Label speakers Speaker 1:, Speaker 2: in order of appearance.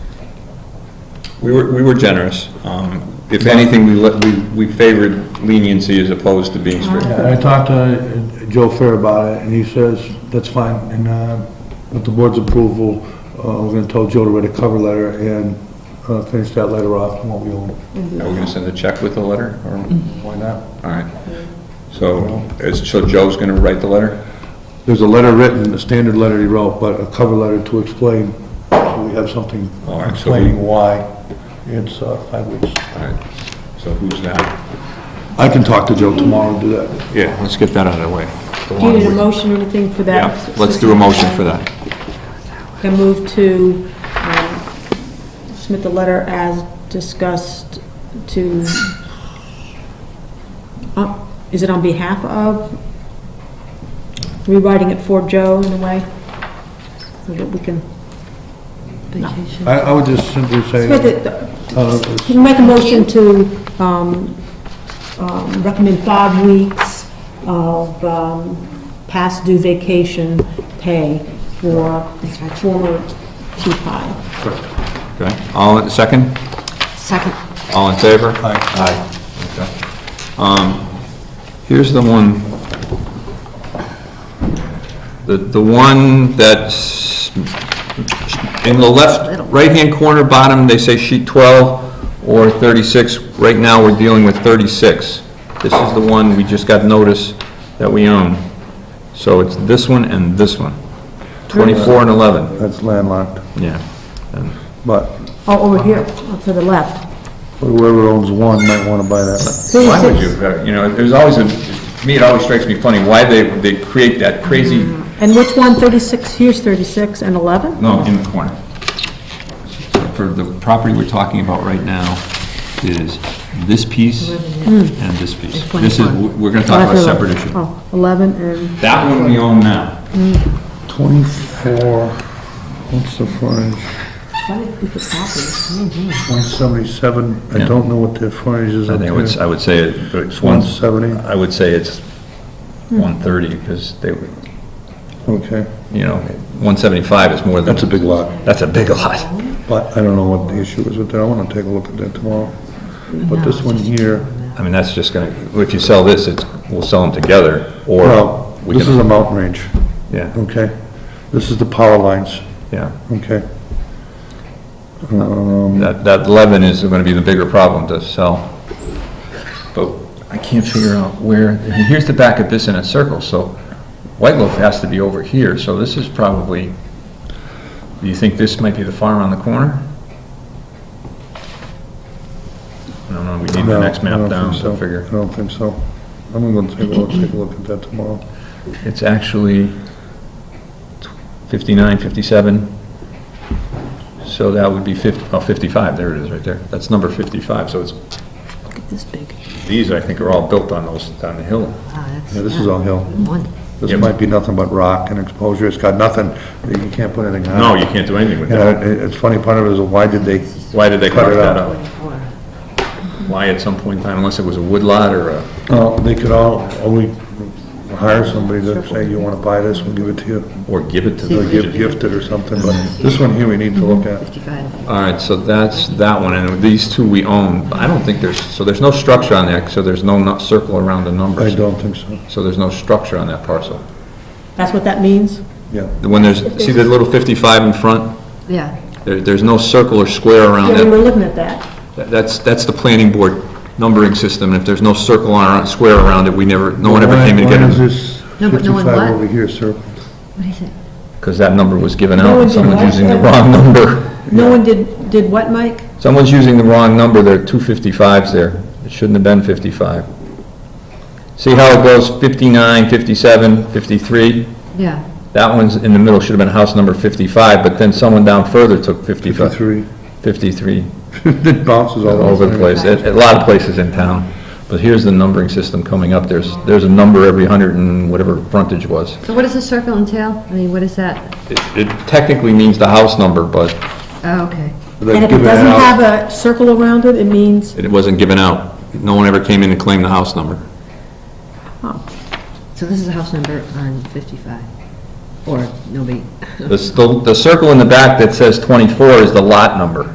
Speaker 1: We were, we were generous. Um, If anything, we let, we- we favored leniency as opposed to being strict.
Speaker 2: Uh-huh.
Speaker 3: Yeah, I talked to uh, Joe Fair about it, and he says, that's fine, and uh, with the board's approval, uh, we're gonna tell Joe to write a cover letter and uh, finish that letter off, and what we owe him.
Speaker 1: Are we gonna send a check with the letter, or,
Speaker 2: Mm-hmm.
Speaker 3: Why not?
Speaker 1: all right? So, is- so Joe's gonna write the letter?
Speaker 3: There's a letter written, a standard letter he wrote, but a cover letter to explain, so we have something
Speaker 1: All right, so we-
Speaker 3: explaining why it's uh, five weeks.
Speaker 1: All right, so who's that?
Speaker 3: I can talk to Joe tomorrow and do that.
Speaker 1: Yeah, let's get that out of the way.
Speaker 2: Do you need a motion or anything for that?
Speaker 1: Yeah, let's do a motion for that.
Speaker 2: I move to um, submit the letter as discussed to, uh, is it on behalf of? Rewriting it for Joe in a way? So that we can,
Speaker 4: Vacation.
Speaker 3: I, I would just simply say,
Speaker 2: submit it-
Speaker 3: uh,
Speaker 2: Can you make a motion to um, um, recommend five weeks of um, past due vacation pay for former chief high?
Speaker 1: Okay, all, in- second?
Speaker 4: Second.
Speaker 1: All in favor?
Speaker 3: Aye.
Speaker 1: Aye. Um, here's the one, the, the one that's in the left, right-hand corner bottom, they say sheet 12 or 36. Right now, we're dealing with 36. This is the one we just got notice that we own. So it's this one and this one, 24 and 11,
Speaker 3: that's landlocked,
Speaker 1: yeah. And
Speaker 3: but
Speaker 2: Oh, over here, up to the left.
Speaker 3: whoever owns one might wanna buy that.
Speaker 1: Why would you, Uh, you know, there's always a, to me, it always strikes me funny, why they, they create that crazy,
Speaker 2: And which one, 36, here's 36 and 11?
Speaker 1: no, in the corner. For the property we're talking about right now is this piece and this piece. This is, we're gonna talk about a separate issue.
Speaker 2: Oh, 11 and,
Speaker 1: That one we own now.
Speaker 3: Twenty-four, what's the frontage? One seventy-seven, I
Speaker 1: Yeah.
Speaker 3: don't know what their frontage is
Speaker 1: I
Speaker 3: up
Speaker 1: think I would,
Speaker 3: there.
Speaker 1: I would say it's one,
Speaker 3: One seventy,
Speaker 1: I would say it's one thirty, because they, were-
Speaker 3: okay,
Speaker 1: you know, one seventy-five is more than.
Speaker 3: That's a big lot.
Speaker 1: That's a big lot.
Speaker 3: but I don't know what the issue is with that, I wanna take a look at that tomorrow. But this one here,
Speaker 1: I mean, that's just gonna, if you sell this, it's, we'll sell them together, or.
Speaker 3: well,
Speaker 1: we
Speaker 3: this
Speaker 1: can-
Speaker 3: is a mountain range,
Speaker 1: Yeah,
Speaker 3: okay? This is the power lines,
Speaker 1: yeah.
Speaker 3: okay?
Speaker 1: That, that 11 is going to be the bigger problem to sell. But I can't figure out where, I mean, here's the back of this in a circle, so White Loaf has to be over here, so this is probably, do you think this might be the farm on the corner? No, no, we need the
Speaker 3: No,
Speaker 1: next
Speaker 3: I
Speaker 1: map
Speaker 3: don't think
Speaker 1: down, so
Speaker 3: so.
Speaker 1: I figure.
Speaker 3: I don't think so. I'm gonna take a look, take a look at that tomorrow.
Speaker 1: It's actually 59, 57, so that would be 50, oh, 55, there it is, right there. That's number 55, so it's,
Speaker 4: Look at this big.
Speaker 1: these, I think, are all built on those, on the hill.
Speaker 3: Uh-huh. Yeah, this is all hill.
Speaker 4: Ah, One.
Speaker 3: This
Speaker 1: Yeah.
Speaker 3: might be nothing but rock and exposure, it's got nothing, you can't put anything on it.
Speaker 1: No, you can't do anything with
Speaker 3: You
Speaker 1: that.
Speaker 3: know, it- it's funny, part of it is, why did they,
Speaker 1: Why did they
Speaker 3: Cut
Speaker 1: carve
Speaker 3: it
Speaker 1: that
Speaker 3: out.
Speaker 1: out? Why at some point in time, unless it was a wood lot or a,
Speaker 3: oh, they could all, oh, we hire somebody to say, you wanna buy this, we'll give it to you,
Speaker 1: or give it to
Speaker 3: or give,
Speaker 1: the...
Speaker 3: gift it or something, but this one here we need to look at.
Speaker 4: Fifty-five.
Speaker 1: All right, so that's that one, and these two we own. But I don't think there's, so there's no structure on that, so there's no nu- circle around the
Speaker 3: I
Speaker 1: numbers.
Speaker 3: don't think so,
Speaker 1: So there's no structure on that parcel.
Speaker 2: that's what that means?
Speaker 3: yeah.
Speaker 1: When there's, see the little 55 in front?
Speaker 4: Yeah.
Speaker 1: There, there's no circle or square around
Speaker 2: Yeah, we were
Speaker 1: it.
Speaker 2: looking at that.
Speaker 1: That's, that's the planning board numbering system, and if there's no circle or square around it, we never, no one ever
Speaker 3: Why-
Speaker 1: came to get
Speaker 3: Why is
Speaker 1: it.
Speaker 3: this
Speaker 4: No, but no one
Speaker 3: fifty-five
Speaker 4: what?
Speaker 3: over here, sir?
Speaker 4: What is it?
Speaker 1: Because that number was given
Speaker 2: No
Speaker 1: out,
Speaker 2: one
Speaker 1: and
Speaker 2: did
Speaker 1: someone's
Speaker 2: what?
Speaker 1: using the wrong number.
Speaker 2: No one did, did what, Mike?
Speaker 1: Someone's using the wrong number, there are two 55s there. It shouldn't have been 55. See how it goes, 59, 57, 53?
Speaker 4: Yeah.
Speaker 1: That one's in the middle, should have been house number 55, but then someone down further took 55,
Speaker 3: Fifty-three,
Speaker 1: 53.
Speaker 3: it bounces all
Speaker 1: all over the place, at at a lot of places in town. But here's the numbering system coming up, there's, there's a number every hundred and whatever frontage was.
Speaker 4: So what does the circle entail? I mean, what is that?
Speaker 1: It it technically means the house number, but
Speaker 4: Oh, okay.
Speaker 3: They've
Speaker 2: And if it
Speaker 3: given
Speaker 2: doesn't
Speaker 3: out-
Speaker 2: have a circle around it, it means,
Speaker 1: it wasn't given out. No one ever came in to claim the house number.
Speaker 4: So this is a house number on fifty-five. Or nobody.
Speaker 1: The, s- the the circle in the back that says 24 is the lot number.